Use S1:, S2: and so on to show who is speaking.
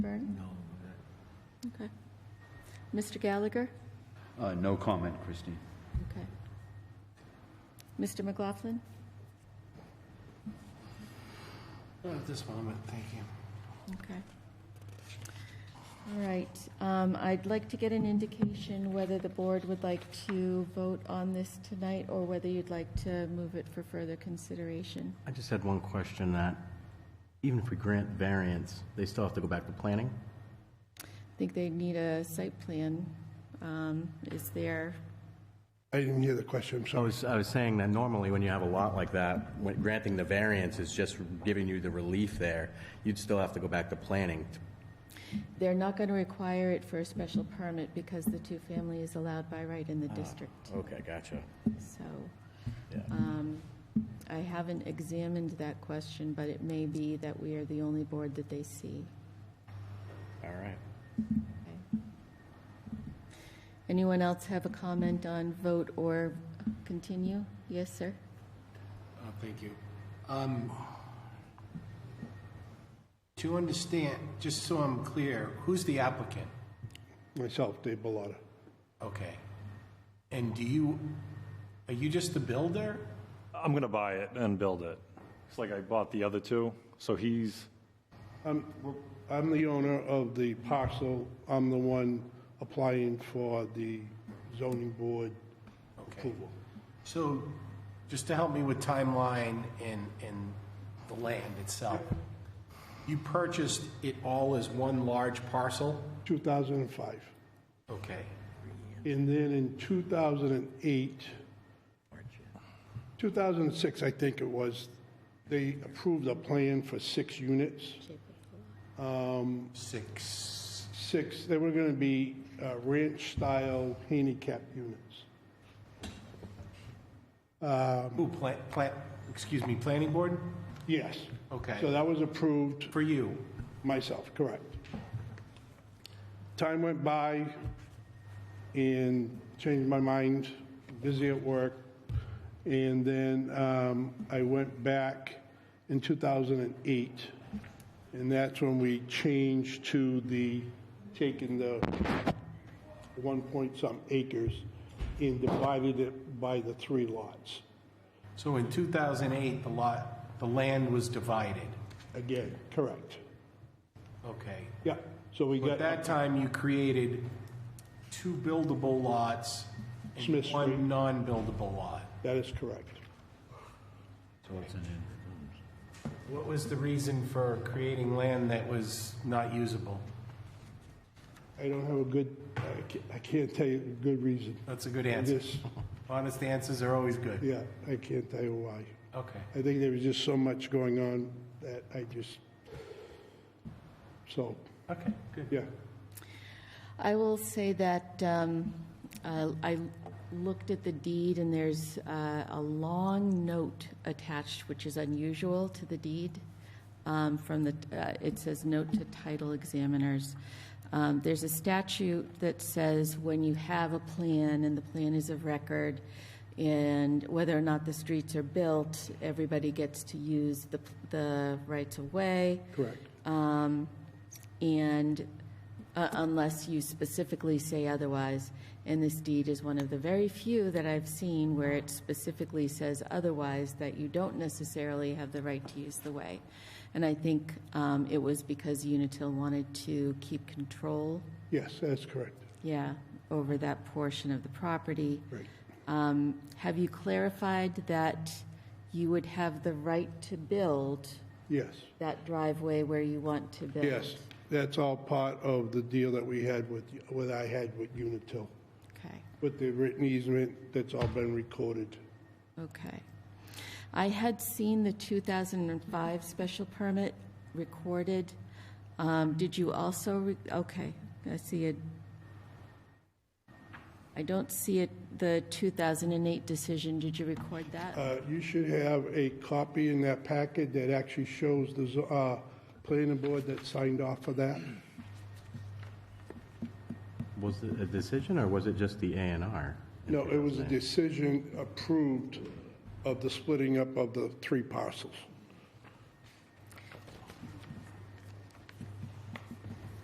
S1: Okay. Mr. Gallagher?
S2: Uh, No comment, Christine.
S1: Okay. Mr. McLaughlin?
S3: Not at this moment, thank you.
S1: Okay. All right, um, I'd like to get an indication whether the board would like to vote on this tonight or whether you'd like to move it for further consideration.
S4: I just had one question that, even if we grant variance, they still have to go back to planning?
S1: I think they need a site plan, um, is there,
S5: I didn't hear the question, I'm
S4: I
S5: sorry.
S4: was, I was saying that normally when you have a lot like that, when granting the variance is just giving you the relief there, you'd still have to go back to planning.
S1: they're not going to require it for a special permit because the two-family is allowed by right in the district,
S4: Okay, gotcha.
S1: so.
S4: Yeah.
S1: Um, I haven't examined that question, but it may be that we are the only board that they see.
S4: All right.
S1: Anyone else have a comment on vote or continue? Yes, sir?
S3: Uh, Thank you. Um, To understand, just so I'm clear, who's the applicant?
S5: Myself, Dave Bellotta.
S3: Okay. And do you, are you just the builder?
S6: I'm gonna buy it and build it. It's like I bought the other two, so he's,
S5: I'm, I'm the owner of the parcel, I'm the one applying for the zoning board
S3: Okay.
S5: approval.
S3: So, just to help me with timeline and, and the land itself, you purchased it all as one large parcel?
S5: 2005.
S3: Okay.
S5: And then in 2008, 2006, I think it was, they approved a plan for six units.
S3: Six,
S5: Six, they were going to be uh, ranch-style handicap units.
S3: who, plant, plant, excuse me, planning board?
S5: Yes.
S3: Okay.
S5: So that was approved
S3: For you?
S5: myself, correct. Time went by and changed my mind, busy at work. And then um, I went back in 2008. And that's when we changed to the, taking the one point some acres and divided it by the three lots
S3: So in 2008, the lot, the land was divided.
S5: again, correct?
S3: Okay.
S5: Yeah, so we
S3: At
S5: got.
S3: that time, you created two buildable lots and
S5: Smith Street.
S3: one non-buildable lot.
S5: That is correct.
S3: What was the reason for creating land that was not usable?
S5: I don't have a good, I ca- I can't tell you a good reason.
S3: That's a good
S5: I
S3: answer.
S5: just,
S3: Honest answers are always good.
S5: yeah, I can't tell you why.
S3: Okay.
S5: I think there was just so much going on that I just, so,
S3: Okay, good.
S5: yeah.
S1: I will say that um, uh, I looked at the deed, and there's uh, a long note attached, which is unusual to the deed. um, From the, uh, it says note to title examiners. Um, There's a statute that says when you have a plan and the plan is of record, and whether or not the streets are built, everybody gets to use the, the rights of way.
S5: Correct.
S1: And uh, unless you specifically say otherwise, and this deed is one of the very few that I've seen where it specifically says otherwise, that you don't necessarily have the right to use the way. And I think um, it was because Unitil wanted to keep control,
S5: Yes, that's correct.
S1: yeah, over that portion of the property.
S5: Right.
S1: Um, Have you clarified that you would have the right to build
S5: Yes,
S1: that driveway where you want to build?
S5: yes. That's all part of the deal that we had with, what I had with Unitil,
S1: Okay.
S5: with the written easement, that's all been recorded.
S1: Okay. I had seen the 2005 special permit recorded. Um, Did you also, re- okay, I see it. I don't see it, the 2008 decision, did you record that?
S5: Uh, You should have a copy in that packet that actually shows the zo- uh, planning board that signed off for that.
S4: Was it a decision or was it just the A and R?
S5: No, it was a decision approved of the splitting up of the three parcels.